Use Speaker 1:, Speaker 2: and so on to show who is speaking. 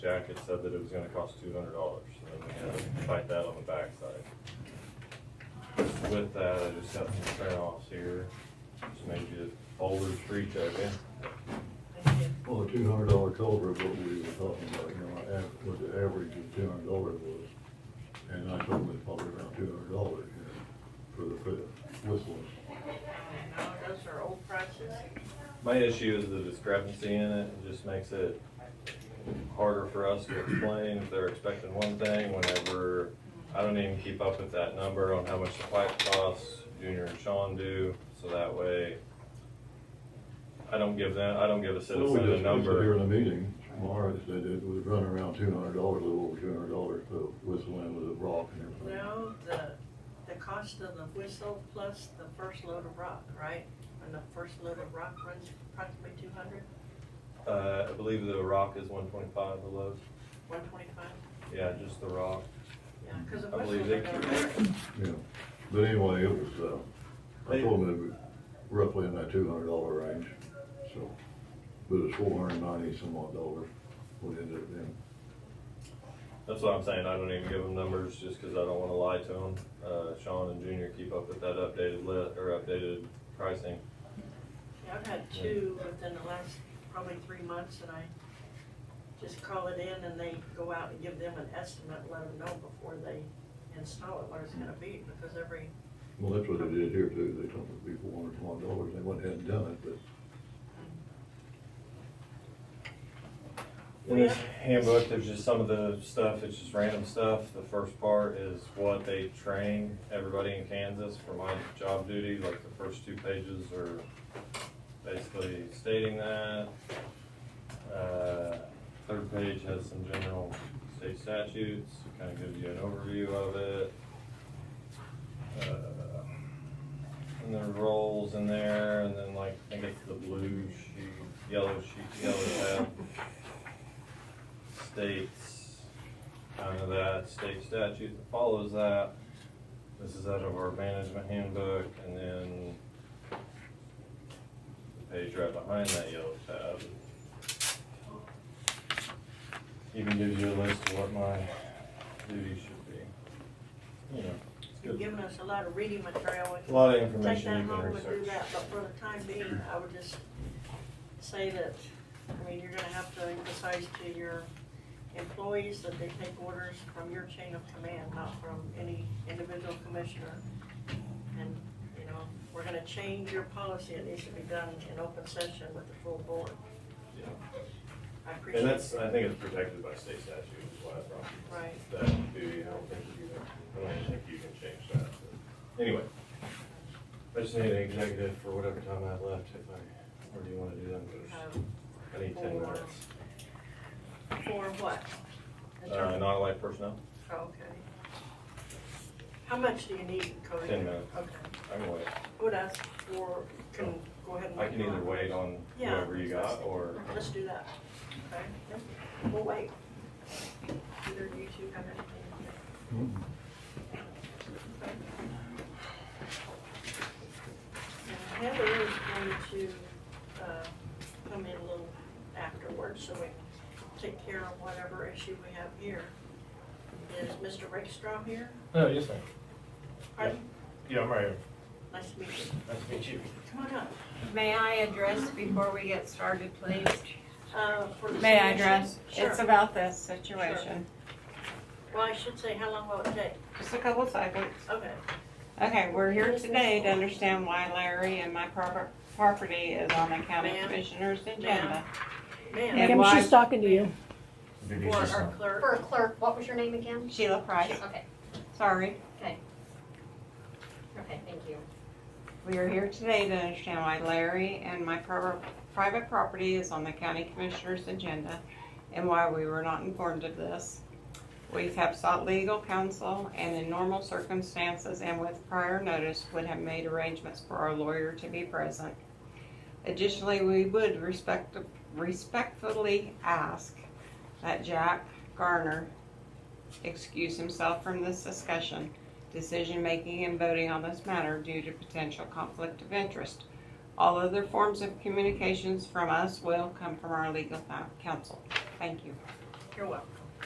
Speaker 1: Jack had said that it was gonna cost two hundred dollars, and then we had to fight that on the backside. With that, I just got some print offs here, just made you folders for each of you.
Speaker 2: Well, the two hundred dollar culvert, what we were talking about, you know, av- what the average of two hundred dollars was. And I told them it's probably around two hundred dollars, you know, for the fifth whistling.
Speaker 3: No, those are old prices.
Speaker 1: My issue is the discrepancy in it, it just makes it harder for us to explain if they're expecting one thing whenever, I don't even keep up with that number on how much the pipe costs, Junior and Sean do, so that way I don't give them, I don't give a
Speaker 2: Well,
Speaker 1: citizen a
Speaker 2: we just- we said Here
Speaker 1: number.
Speaker 2: in the meeting, Mara said it was running around two hundred dollars, a little over two hundred dollars, for whistling with a rock and everything.
Speaker 3: No, the, the cost of the whistle plus the first load of rock, right? And the first load of rock runs approximately two hundred,
Speaker 1: Uh, I believe the rock is one twenty-five, the low,
Speaker 3: one twenty-five?
Speaker 1: yeah, just the rock.
Speaker 3: Yeah, because the
Speaker 1: I believe
Speaker 3: whistles
Speaker 1: they
Speaker 3: are gonna
Speaker 1: keep-
Speaker 3: vary.
Speaker 2: Yeah, but anyway, it was, uh, I
Speaker 1: They-
Speaker 2: told them it was roughly in that two hundred dollar range, so. But it's four hundred ninety some odd dollars, what it ended up being.
Speaker 1: That's what I'm saying, I don't even give them numbers just because I don't want to lie to them. Uh, Sean and Junior keep up with that updated lit, or updated pricing.
Speaker 3: Yeah, I've had two within the last probably three months and I just call it in and they go out and give them an estimate, let them know before they install it what it's gonna be because every,
Speaker 2: Well, that's what they did here too, they told me it'd be four hundred some odd dollars, they went ahead and done it, but
Speaker 1: In this handbook, there's just some of the stuff, it's just random stuff. The first part is what they train everybody in Kansas for my job duty, like the first two pages are basically stating that. Uh, Third page has some general state statutes, kind of gives you an overview of it. Uh, And there are roles in there, and then like, I think it's the blue sheet, yellow sheet, yellow tab states, kind of that state statute that follows that. This is out of our management handbook, and then the page right behind that yellow tab. Even gives you a list of what my duties should be. You know, it's
Speaker 3: you've
Speaker 1: good.
Speaker 3: given us a lot of reading material.
Speaker 1: A lot of
Speaker 3: Take
Speaker 1: information you
Speaker 3: that
Speaker 1: can
Speaker 3: home and do
Speaker 1: research.
Speaker 3: that, but for the time being, I would just say that, I mean, you're gonna have to emphasize to your employees that they take orders from your chain of command, not from any individual commissioner. And, you know, we're gonna change your policy, it needs to be done in open session with the full board.
Speaker 1: Yeah.
Speaker 3: I appreciate
Speaker 1: And that's,
Speaker 3: it.
Speaker 1: I think it's protected by state statute, is why I brought this.
Speaker 3: Right.
Speaker 1: That duty, I don't think you can, I don't think you can change that. but- Anyway, I just need an executive for whatever time I have left, if I, or do you wanna do them first?
Speaker 3: Um,
Speaker 1: I need ten
Speaker 3: four.
Speaker 1: minutes.
Speaker 3: For what? Oh,
Speaker 1: Uh, non-life personnel,
Speaker 3: Okay. How much do you need, Cody?
Speaker 1: Ten minutes.
Speaker 3: Okay.
Speaker 1: I can wait.
Speaker 3: I Would ask for, can, go ahead and.
Speaker 1: I can either wait on
Speaker 3: Yeah.
Speaker 1: whoever you got, or,
Speaker 3: Let's do that. Okay, Yep. we'll wait. Either you two have anything. Now, Heather is going to, uh, come in a little afterwards, so we can take care of whatever issue we have here. Is Mr. Rickstrom here?
Speaker 4: No, yes, ma'am.
Speaker 3: Pardon?
Speaker 4: Yeah, I'm right here.
Speaker 3: Nice to meet you.
Speaker 4: Nice to meet you.
Speaker 3: Come on up.
Speaker 5: May I address before we get started, please?
Speaker 3: Uh, for the
Speaker 6: May I
Speaker 3: submission?
Speaker 6: address?
Speaker 3: Sure.
Speaker 6: It's about this situation.
Speaker 3: Well, I should say, how long will it take?
Speaker 6: Just a couple seconds.
Speaker 3: Okay.
Speaker 6: Okay, we're here today to understand why Larry and my proper, property is on the county
Speaker 3: Ma'am?
Speaker 6: commissioner's agenda.
Speaker 3: Ma'am,
Speaker 6: And
Speaker 7: Kim,
Speaker 6: why-
Speaker 7: she's talking to you.
Speaker 3: for our
Speaker 8: For
Speaker 3: clerk,
Speaker 8: a clerk, what was your name again?
Speaker 6: Sheila Price,
Speaker 8: Okay,
Speaker 6: sorry.
Speaker 8: okay, thank you.
Speaker 6: We are here today to understand why Larry and my pro- private property is on the county commissioner's agenda and why we were not informed of this. We have sought legal counsel and in normal circumstances and with prior notice would have made arrangements for our lawyer to be present. Additionally, we would respect, respectfully ask that Jack Garner excuse himself from this discussion decision-making and voting on this matter due to potential conflict of interest. All other forms of communications from us will come from our legal coun- counsel. Thank you.
Speaker 3: You're welcome.